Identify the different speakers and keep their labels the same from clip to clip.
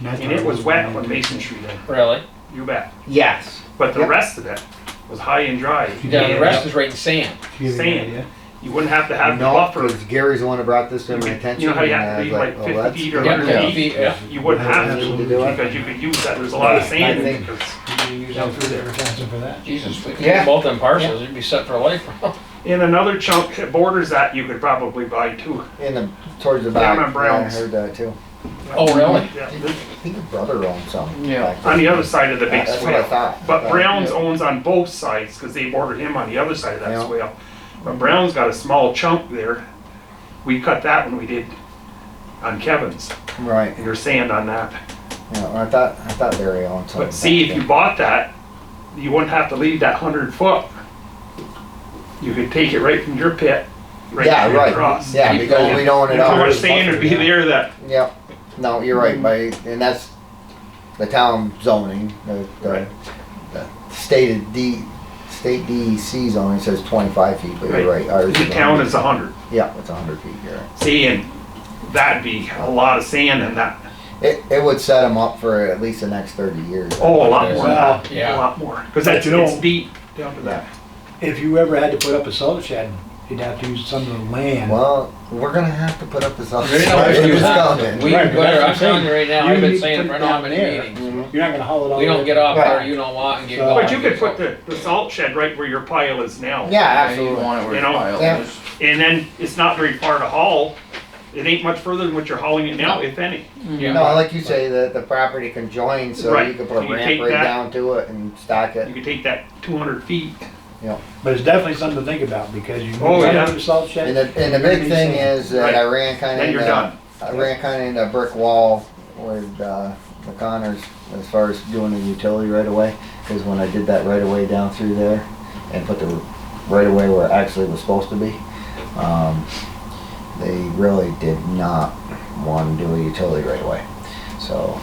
Speaker 1: That's
Speaker 2: And
Speaker 1: what
Speaker 2: it was
Speaker 1: I'm
Speaker 2: wet
Speaker 1: saying.
Speaker 2: when Mason Street in.
Speaker 3: Really?
Speaker 2: You bet.
Speaker 4: Yes.
Speaker 2: But the
Speaker 4: Yep.
Speaker 2: rest of it was high and dry.
Speaker 3: Yeah, the
Speaker 2: And
Speaker 3: rest is right in sand.
Speaker 1: To give you an
Speaker 2: sand.
Speaker 1: idea.
Speaker 2: You wouldn't have to have the
Speaker 5: No,
Speaker 2: buffer.
Speaker 5: because Gary's the one that brought this to my attention.
Speaker 2: You know how you
Speaker 5: and
Speaker 2: have
Speaker 5: I
Speaker 2: to
Speaker 5: was
Speaker 2: leave like
Speaker 5: oh, that's
Speaker 2: fifty feet or
Speaker 5: good.
Speaker 3: Yeah,
Speaker 2: hundred
Speaker 3: yeah.
Speaker 2: feet?
Speaker 3: Yeah.
Speaker 2: You wouldn't have
Speaker 5: Yeah.
Speaker 2: to, because you could use that, there's a lot of sand
Speaker 5: I
Speaker 2: in
Speaker 5: think-
Speaker 2: it.
Speaker 1: You use
Speaker 2: Down
Speaker 1: that
Speaker 2: through there.
Speaker 1: advertising for that.
Speaker 3: Jesus, if we could
Speaker 4: Yeah.
Speaker 3: do both them parcels, you'd be set for life.
Speaker 2: In another chunk that borders that, you could probably buy two.
Speaker 5: In the, towards the
Speaker 2: Down
Speaker 5: back.
Speaker 2: on Brown's.
Speaker 5: Yeah, I heard that too.
Speaker 3: Oh, really?
Speaker 2: Yeah,
Speaker 5: I
Speaker 2: this-
Speaker 5: think your brother owned some.
Speaker 3: Yeah.
Speaker 5: back there.
Speaker 2: On the other side of the big
Speaker 5: That's what I
Speaker 2: swale.
Speaker 5: thought.
Speaker 2: But
Speaker 5: Uh,
Speaker 2: Brown's
Speaker 5: yeah.
Speaker 2: owns on both sides, because they bordered him on the other side of that
Speaker 5: Yeah.
Speaker 2: swale. But Brown's got a small chunk there. We cut that when we did on Kevin's,
Speaker 5: Right,
Speaker 2: and your sand on that.
Speaker 5: yeah, I thought, I thought Gary owned some.
Speaker 2: But see, if you bought that, you wouldn't have to leave that hundred foot. You could take it right from your pit, right
Speaker 5: Yeah,
Speaker 2: straight
Speaker 5: right.
Speaker 2: across.
Speaker 5: Yeah, because we don't own it
Speaker 2: And how
Speaker 5: all.
Speaker 2: much sand would be there that,
Speaker 5: Yep, no, you're right, by, and that's the town zoning, the, the,
Speaker 2: Right.
Speaker 5: the stated D, state DEC zoning says twenty-five feet, but you're
Speaker 2: Right.
Speaker 5: right. ours
Speaker 2: the town
Speaker 5: 100.
Speaker 2: is a hundred.
Speaker 5: Yeah, it's hundred feet here.
Speaker 2: See, and that'd be a lot of sand in that.
Speaker 5: It, it would set them up for at least the next thirty years.
Speaker 2: Oh, a lot more. than that.
Speaker 3: Yeah.
Speaker 2: A lot more. Because that's,
Speaker 1: But you know-
Speaker 2: it's deep down to that.
Speaker 1: If you ever had to put up a salt shed, you'd have to use some of the land.
Speaker 5: Well, we're gonna have to put up this.
Speaker 3: We don't use that. We,
Speaker 1: Right, but that's
Speaker 3: better,
Speaker 1: what
Speaker 3: I'm
Speaker 1: I'm saying.
Speaker 3: telling you right now,
Speaker 1: You
Speaker 3: I've been
Speaker 1: need to
Speaker 3: saying
Speaker 1: put
Speaker 3: it for
Speaker 1: it
Speaker 3: how
Speaker 1: down
Speaker 3: many
Speaker 1: there.
Speaker 3: meetings.
Speaker 5: Mm-hmm.
Speaker 1: You're not gonna haul it all.
Speaker 3: We don't
Speaker 1: over.
Speaker 3: get off
Speaker 5: Right.
Speaker 3: there, you don't want, and get
Speaker 1: But
Speaker 3: going.
Speaker 2: But you could put the, the salt shed right where your pile is now.
Speaker 5: Yeah,
Speaker 6: Yeah, you
Speaker 5: absolutely.
Speaker 6: don't want it where
Speaker 2: You
Speaker 6: your
Speaker 2: know,
Speaker 5: yeah.
Speaker 6: pile is.
Speaker 2: And then it's not very far to haul. It ain't much further than what you're hauling it now, if any.
Speaker 3: Yeah.
Speaker 5: No, like you say, the, the property can join, so you
Speaker 2: Right.
Speaker 5: can put a
Speaker 2: You take
Speaker 5: ramp right
Speaker 2: that-
Speaker 5: down to it and stack
Speaker 2: You
Speaker 5: it.
Speaker 2: could take that two hundred feet.
Speaker 1: But it's definitely something to think about because you
Speaker 2: Oh,
Speaker 1: move
Speaker 2: yeah.
Speaker 1: out of the salt shed.
Speaker 5: And the, and the big thing is that I ran kinda
Speaker 2: Then you're
Speaker 5: into,
Speaker 2: done.
Speaker 5: I ran kinda into a brick wall with, uh, the Connors as far as doing the utility right away. Cause when I did that right away down through there and put the right away where it actually was supposed to be, um, they really did not want to do a utility right away. So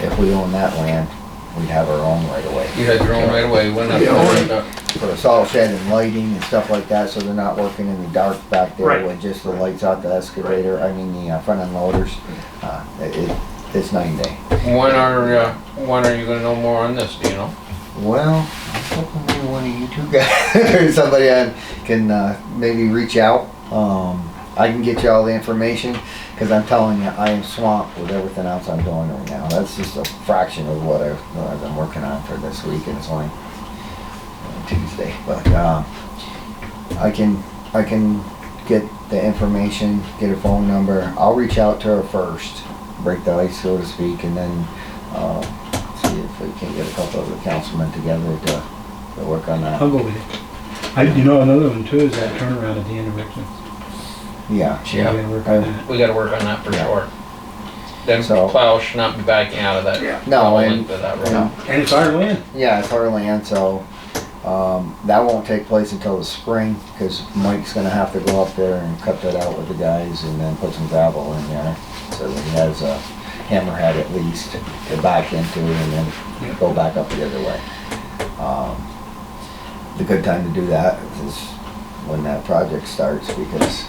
Speaker 5: if we own that land, we'd have our own right away.
Speaker 3: You had your own right away, wouldn't have
Speaker 2: Yeah.
Speaker 3: to worry about-
Speaker 5: for a salt shed and lighting and stuff like that, so they're not working in the dark back there
Speaker 2: Right.
Speaker 5: with just the lights out the excavator, I mean, the uh, front end loaders. Uh, it, it- it's night and day.
Speaker 3: When are, uh, when are you gonna know more on this, do you know?
Speaker 5: Well, I'm hoping maybe one of you two guys, or somebody I can, uh, maybe reach out. Um, I can get you all the information, cause I'm telling you, I am swamped with everything else I'm doing right now. That's just a fraction of what I've, what I've been working on for this week, and it's only uh, Tuesday, but, um, I can, I can get the information, get her phone number. I'll reach out to her first, break the ice, so to speak, and then, uh, see if we can get a couple of the councilmen together to, to work on
Speaker 1: I'll
Speaker 5: that.
Speaker 1: go with it. I, you know, another one too is that turnaround at the end of Richmond.
Speaker 5: Yeah,
Speaker 3: Yeah.
Speaker 1: We gotta work on that.
Speaker 3: We gotta work on that for
Speaker 5: Yeah.
Speaker 3: sure. Then
Speaker 5: So-
Speaker 3: plow should not be backing out of that.
Speaker 2: Yeah.
Speaker 5: no,
Speaker 3: into
Speaker 5: and,
Speaker 3: that
Speaker 5: you
Speaker 3: road.
Speaker 5: know,
Speaker 1: And it's our land.
Speaker 5: yeah, it's our land, so, um, that won't take place until the spring, cause Mike's gonna have to go up there and cut that out with the guys and then put some gravel in there. So that he has a hammerhead at least to back into and then go back up the other way. Um, The good time to do that is when that project starts, because,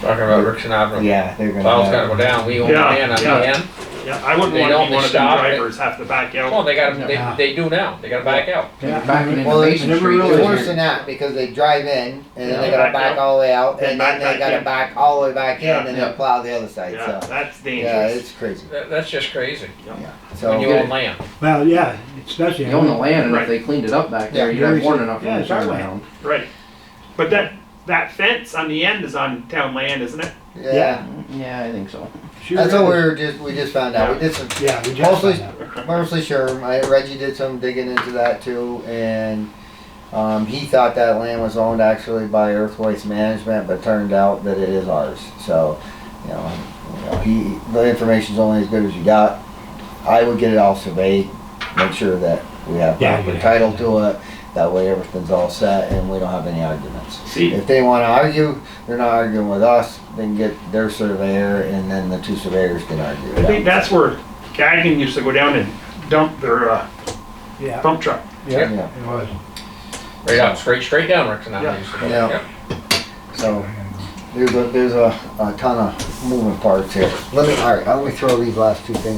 Speaker 3: Talking about Rickson Avenue.
Speaker 5: yeah, they're gonna.
Speaker 3: Plow's
Speaker 5: have-
Speaker 3: gotta go down, we own the
Speaker 2: Yeah,
Speaker 3: land on
Speaker 2: yeah.
Speaker 3: the end.
Speaker 2: Yeah, I wouldn't
Speaker 3: They
Speaker 2: want to
Speaker 3: don't,
Speaker 2: be
Speaker 3: they
Speaker 2: one of the
Speaker 3: stop, they-
Speaker 2: drivers have to back
Speaker 3: Well,
Speaker 2: out.
Speaker 3: they gotta,
Speaker 1: Yeah.
Speaker 3: they, they do now, they gotta back out.
Speaker 1: Yeah.
Speaker 6: Backing into
Speaker 5: Well, they
Speaker 6: Mason
Speaker 1: never
Speaker 6: Street.
Speaker 1: really-
Speaker 5: It's
Speaker 6: is
Speaker 5: worse
Speaker 6: your-
Speaker 5: than that, because they drive in, and then they
Speaker 2: Yeah.
Speaker 5: gotta back all the way out,
Speaker 2: Then
Speaker 5: and then
Speaker 2: back
Speaker 5: they
Speaker 2: back
Speaker 5: gotta
Speaker 2: in.
Speaker 5: back all the way back in,
Speaker 2: Yeah.
Speaker 5: and then plow the other side,
Speaker 2: Yeah,
Speaker 5: so.
Speaker 2: that's
Speaker 5: uh, Yeah,
Speaker 2: dangerous.
Speaker 5: it's crazy,
Speaker 3: That, that's just crazy,
Speaker 5: yeah,
Speaker 3: when you
Speaker 5: so,
Speaker 3: own land.
Speaker 1: Well, yeah, especially.
Speaker 6: You own the land, and
Speaker 2: Right.
Speaker 6: if they cleaned it up back there,
Speaker 5: Yeah,
Speaker 6: you'd have
Speaker 1: yours
Speaker 6: more
Speaker 1: is-
Speaker 6: than enough
Speaker 1: yeah,
Speaker 6: room to
Speaker 1: it's our
Speaker 6: turn
Speaker 1: land.
Speaker 6: around.
Speaker 2: Right. But that, that fence on the end is on town land, isn't it?
Speaker 5: yeah,
Speaker 6: Yeah, I think so.
Speaker 1: Sure
Speaker 5: that's what we
Speaker 1: is.
Speaker 5: were just, we just found out, we did some
Speaker 1: Yeah, we just
Speaker 5: Mostly-
Speaker 1: found out.
Speaker 5: Mostly sure. I, Reggie did some digging into that too, and um, he thought that land was owned actually by Earth Waste Management, but turned out that it is ours. So, you know, you know he the information's only as good as you got. I would get it all surveyed, make sure that we have
Speaker 1: Yeah,
Speaker 5: proper
Speaker 1: yeah.
Speaker 5: title to it. That way, everything's all set, and we don't have any arguments.
Speaker 2: See,
Speaker 5: If they want to argue, they're not arguing with us. They can get their surveyor, and then the two surveyors can argue. it
Speaker 2: I think
Speaker 5: out.
Speaker 2: that's where Gagnon used to go down and dump their, uh,
Speaker 1: Yeah,
Speaker 2: dump truck.
Speaker 1: yeah,
Speaker 5: yeah.
Speaker 1: it was.
Speaker 3: Right out, straight, straight down Rickson
Speaker 2: Yeah.
Speaker 3: Avenue.
Speaker 5: Yeah. So there's a, there's a, a ton of moving parts here. Let me, all right, let me throw these last two things